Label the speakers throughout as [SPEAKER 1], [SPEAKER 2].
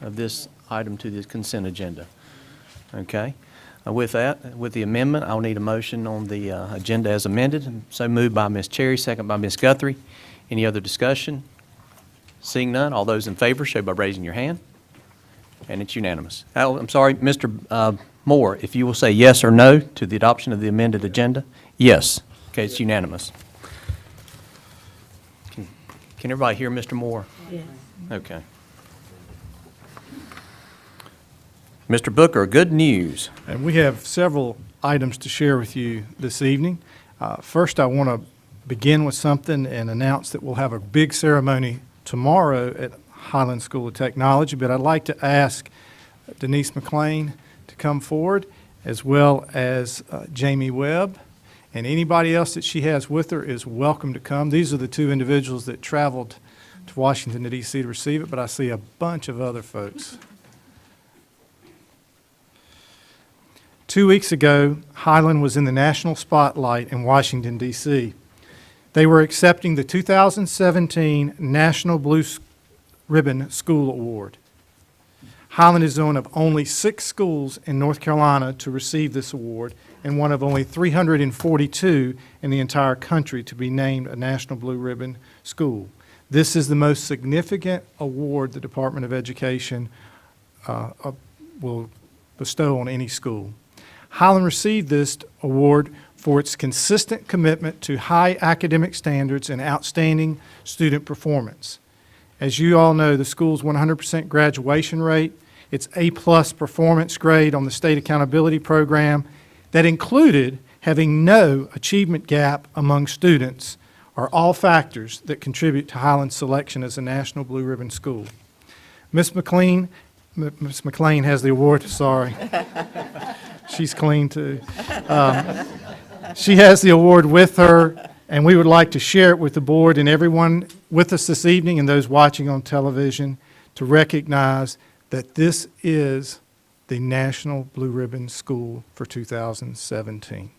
[SPEAKER 1] of this item to the consent agenda. Okay? Uh, With that, with the amendment, I'll need a motion on the uh, agenda as amended. So moved by Ms. Cherry, second by Ms. Guthrie. Any other discussion? Seeing none, all those in favor show by raising your hand. And it's unanimous. Al, I'm sorry, Mr. uh, Moore, if you will say yes or no to the adoption of the amended agenda? Yes. Okay, it's unanimous. Can can everybody hear Mr. Moore?
[SPEAKER 2] Yes.
[SPEAKER 1] Okay. Mr. Booker, good news.
[SPEAKER 3] And we have several items to share with you this evening. Uh, First, I want to begin with something and announce that we'll have a big ceremony tomorrow at Highland School of Technology, but I'd like to ask Denise McLean to come forward, as well as uh, Jamie Webb, and anybody else that she has with her is welcome to come. These are the two individuals that traveled to Washington, D.C. to receive it, but I see a bunch of other folks. Two weeks ago, Highland was in the national spotlight in Washington, D.C. They were accepting the 2017 National Blue S- Ribbon School Award. Highland is one of only six schools in North Carolina to receive this award and one of only 342 in the entire country to be named a National Blue Ribbon School. This is the most significant award the Department of Education uh, uh, will bestow on any school. Highland received this award for its consistent commitment to high academic standards and outstanding student performance. As you all know, the school's 100% graduation rate, its A-plus performance grade on the state accountability program, that included having no achievement gap among students, are all factors that contribute to Highland's selection as a National Blue Ribbon School. Miss McLean, M- Miss McLean has the award, sorry. She's clean, too. Um, She has the award with her, and we would like to share it with the board and everyone with us this evening and those watching on television to recognize that this is the National Blue Ribbon School for 2017.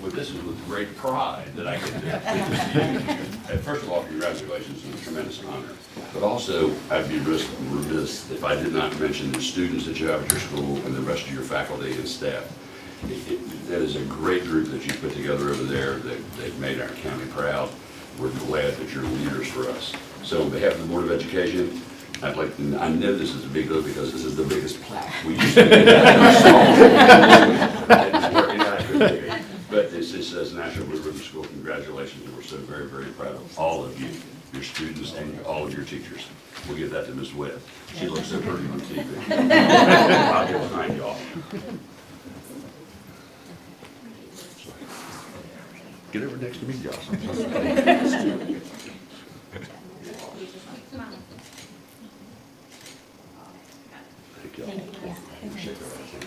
[SPEAKER 4] Well, this is with great pride that I get to. And First of all, congratulations, it's a tremendous honor. But also, I'd be ris- remiss if I did not mention the students that you have at your school and the rest of your faculty and staff. It- it- That is a great group that you put together over there, that they've made our county proud. We're glad that you're leaders for us. So on behalf of the Board of Education, I'd like, to- I know this is a big deal because this is the biggest plaque we used to but this is, says National Blue Ribbon School, congratulations, we're so very, very proud of all of you, your students and all of your teachers. We'll give that to Ms. Webb, she looks so pretty on TV. I'll get behind y'all. Get over next to me, Jocelyn. Thank y'all. Shake her hand.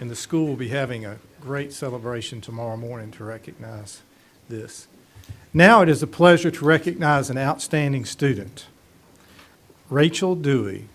[SPEAKER 3] And the school will be having a great celebration tomorrow morning to recognize this. Now it is a pleasure to recognize an outstanding student. Rachel Dewey